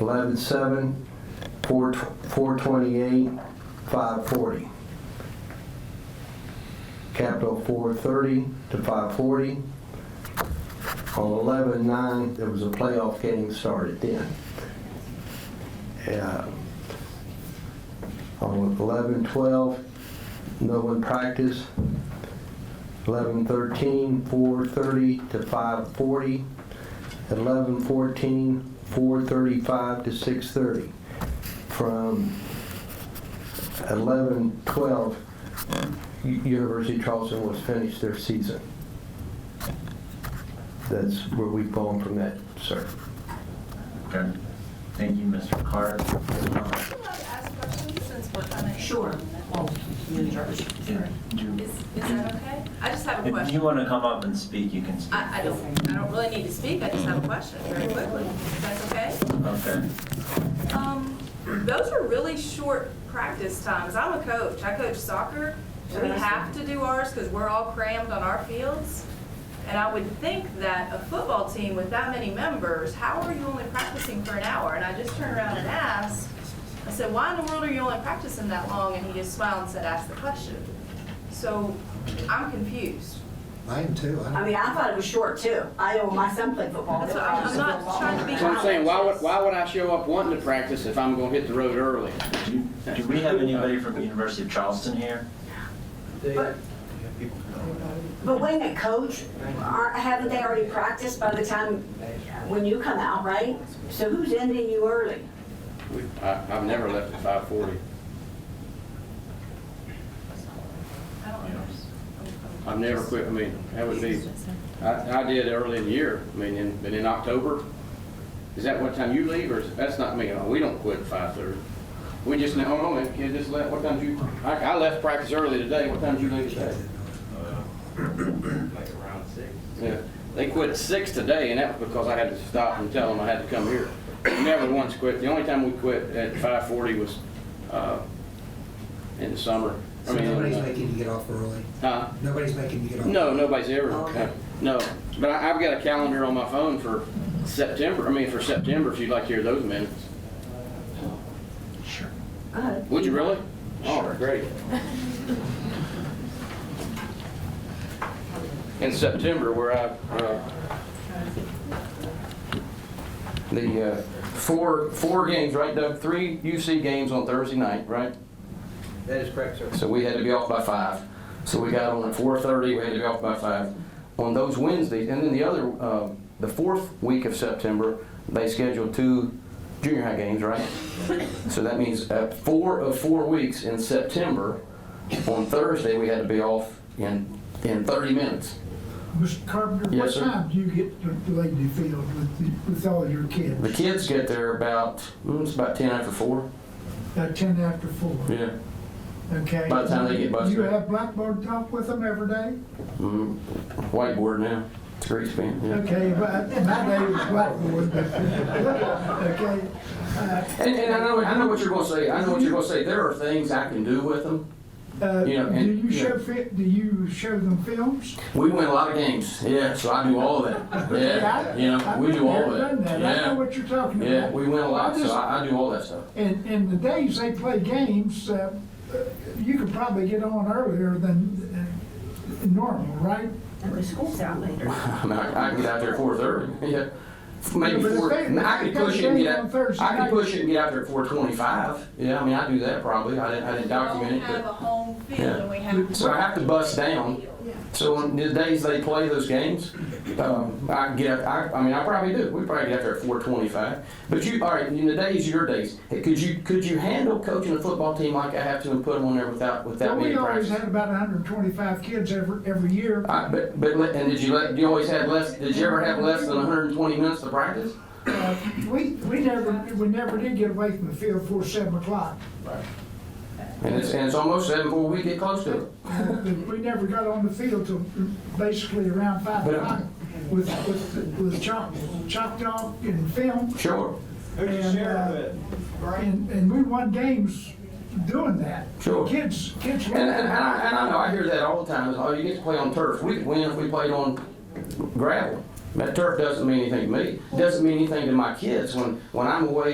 eleven seven, four, four twenty-eight, five forty. Capital four thirty to five forty. On eleven nine, there was a playoff game started then. Yeah. On eleven twelve, no one practiced. Eleven thirteen, four thirty to five forty. Eleven fourteen, four thirty-five to six thirty. From eleven twelve, U- University of Charleston was finished their season. That's where we've gone from that, sir. Okay. Thank you, Mr. Clark. Uh, allowed to ask questions since we're kind of. Sure. Well, New Jersey. Sarah, do you- Is, is that okay? I just have a If you question. Uh, want to come up and speak, you can speak. I, I don't, I don't really need to speak, I just have a question very quickly. If that's okay? Okay. Um, those are really short practice times. I'm a coach. I coach soccer. We have to do ours because we're all crammed on our fields. And I would think that a football team with that many members, how are you only practicing for an hour? And I just turned around and asked, I said, why in the world are you only practicing that long? And he just smiled and said, ask the question. So I'm confused. I am too. I I don't- mean, I thought it was short too. I know my son played football. That's what I'm- I'm not trying to be- So I'm saying, why would, why would I show up wanting to practice if I'm gonna hit the road early? Do do we have anybody from University of Charleston here? But- But wait a minute, coach, aren't, haven't they already practiced by the time, when you come out, right? So who's ending you early? We- I, I've never left at five forty. I don't know. I've never quit, I mean, that would be, I, I did early in the year, I mean, in, but in October. Is that what time you leave, or is, that's not me, Oh, we don't quit at five thirty. We just, no, no, man, kid, just left, what time did you, I, I left practice early today, what time did you leave today? Like around six. Yeah, they quit at six today, and that was because I had to stop and tell them I had to come here. We Never once quit. The only time we quit at five forty was, uh, in the summer. I So mean, nobody's uh, making you get off early. Huh? Nobody's making you get off. No, nobody's ever, Okay. no. But I, I've got a calendar on my phone for September, I mean, for September, if you'd like to hear those minutes. Sure. Uh, Would you really? Sure. Oh, great. In September, where I, uh, the uh, four, four games, right, Doug? Three UC games on Thursday night, right? That is correct, sir. So we had to be off by five. So we got on at four thirty, we had to be off by five. On those Wednesdays, and then the other, uh, the fourth week of September, they scheduled two junior high games, right? So that means uh, four of four weeks in September, on Thursday, we had to be off in, in thirty minutes. Mr. Carpenter, Yes, what sir. time do you get to the Lady Field with, the- with all your The kids? kids get there about, mm, it's about ten after four. At ten after four, Yeah. okay? By the time they get busted. You have blackboard talk with them every day? Mm, Whiteboard now, it's great span, yeah. Okay, but my day was blackboard, but, okay? And, and I know, I know what you're gonna say, I know what you're gonna say, there are things I can do with them. Uh, You know, do and- you yeah. show, fi- do you show them films? We win a lot of games, yeah, so I do all of that, yeah, I- you know, I've we been do there, all of done that, that. I know yeah. what you're talking about. Yeah, we win a lot, I so just- I, I do all that stuff. And, and the days they play games, uh, uh, you could probably get on earlier than uh, normal, right? And the school's out later. I mean, I, I can get out there at four thirty, yeah. Yeah, Maybe but if four, they- if I they could got push it and games get on out, Thursday I could night- push it and get out there at four twenty-five, yeah, I mean, I do that probably, I didn't, I didn't We don't document it, have a but. home field Yeah. and we have. So I have to bust down, so on the days they play those games, um, I can get, I, I mean, I probably do, we probably get out there at four twenty-five. But you, all right, in the days, your days, could you, could you handle coaching a football team like I have to and put them on there without, Well, without we being always practiced? had about hundred and twenty-five kids every, every year. I, but, but, let- and did you let, you always have less, did you ever have less than hundred and twenty minutes to practice? Uh, We, we never, we never did get away from the field before seven o'clock. And it's, and it's almost seven before we get close to it. Uh, We never got on the field till basically around five But- o'clock with, with, with chalk, chalk talk and film. Sure, Who's the And, uh, sheriff at? And, and we won games doing that. Sure. Kids, kids. and, and, and I, and I know, I hear that all the time, is, oh, you get to play on turf, we could win if we played on gravel. That turf doesn't mean anything to me, doesn't mean anything to my kids, when, when I'm away